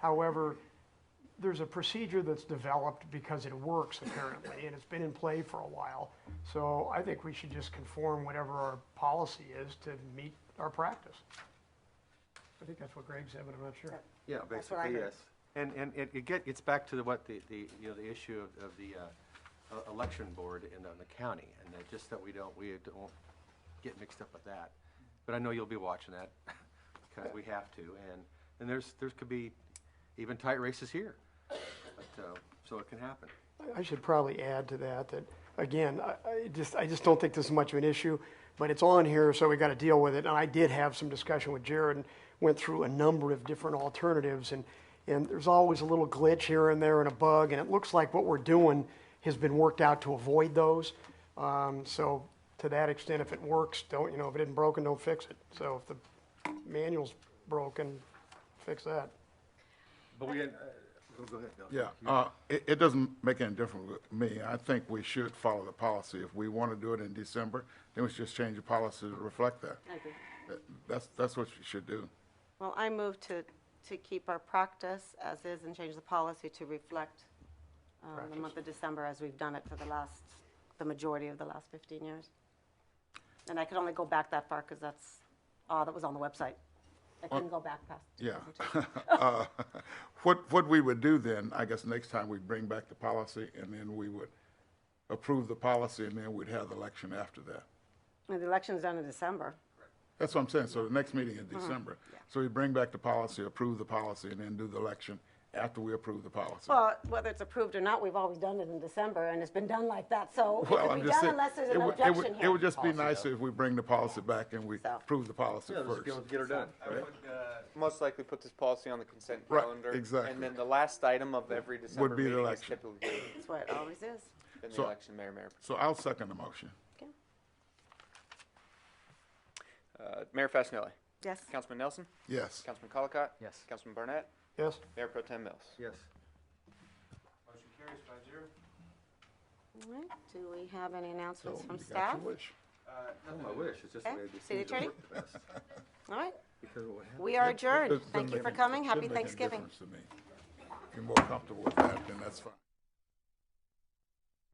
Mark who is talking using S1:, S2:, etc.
S1: However, there's a procedure that's developed because it works apparently, and it's been in play for a while. So I think we should just conform whatever our policy is to meet our practice. I think that's what Greg said, but I'm not sure.
S2: Yeah,
S3: That's what I
S2: basically,
S3: heard.
S2: yes. And, and it, it get, it's back to the, what the, the, you know, the issue of, of the, uh, e- election board in, on the county, and that, just that we don't, we don't get mixed up with that. But I know you'll be watching that, because we have to, and, and there's, there could be even tight races here. But, uh, so it can happen.
S1: I- I should probably add to that, that, again, I, I just, I just don't think this is much of an issue, but it's on here, so we gotta deal with it, and I did have some discussion with Jared, and went through a number of different alternatives, and, and there's always a little glitch here and there and a bug, and it looks like what we're doing has been worked out to avoid those. Um, so, to that extent, if it works, don't, you know, if it isn't broken, don't fix it. So if the manual's broken, fix that.
S2: But we, uh, go- go ahead, Bill.
S4: Yeah, uh, it, it doesn't make any difference with me. I think we should follow the policy. If we want to do it in December, then we should just change the policy to reflect that.
S3: I agree.
S4: That- That's, that's what you should do.
S3: Well, I move to, to keep our practice as is and change the policy to reflect um, the month of December as we've done it for the last, the majority of the last 15 years. And I could only go back that far because that's, all that was on the website. I couldn't go back past.
S4: Yeah. Uh, What, what we would do then, I guess next time we bring back the policy and then we would approve the policy and then we'd have the election after that.
S3: And the election's done in December.
S4: That's what I'm saying. So the next meeting in December. So we bring back the policy, approve the policy, and then do the election after we approve the policy.
S3: Well, whether it's approved or not, we've always done it in December and it's been done like that. So it
S4: Well,
S3: could
S4: I'm
S3: be
S4: just
S3: done
S4: saying.
S3: unless there's
S4: it
S3: an
S4: would- it
S3: objection
S4: would-
S3: here.
S4: It would just be nice if we bring the policy back and we
S3: So-
S4: prove the policy
S2: Yeah, let's
S4: first.
S2: go- get her done.
S5: I would uh, most likely put this policy on the consent
S4: Right,
S5: calendar.
S4: exactly.
S5: And then the last item of every December
S4: be the
S5: meeting is
S4: election.
S5: typically
S3: That's what it always is.
S5: then the
S4: So-
S5: election, mayor, mayor.
S4: So I'll second the motion.
S3: Okay.
S5: Uh, Mayor Fasenelli.
S3: Yes.
S5: Councilman Nelson.
S4: Yes.
S5: Councilman Colacott.
S2: Yes.
S5: Councilman Barnett.
S1: Yes?
S5: Mayor Pro Tem Mills.
S2: Yes.
S5: Motion carries five zero.
S3: All right. Do we have any announcements
S4: So
S3: from
S4: you got
S3: staff?
S4: your wish.
S2: I wish, it's just the
S3: Okay.
S2: way these
S3: City
S2: things are
S3: attorney?
S2: worked the best.
S3: All right.
S2: Because of what happened.
S3: We are
S4: It- it
S3: adjourned.
S4: doesn't
S3: Thank you
S4: make
S3: for
S4: any-
S3: coming.
S4: it
S3: Happy
S4: shouldn't make any
S3: Thanksgiving.
S4: difference to me. If you're more comfortable with that, then that's fine.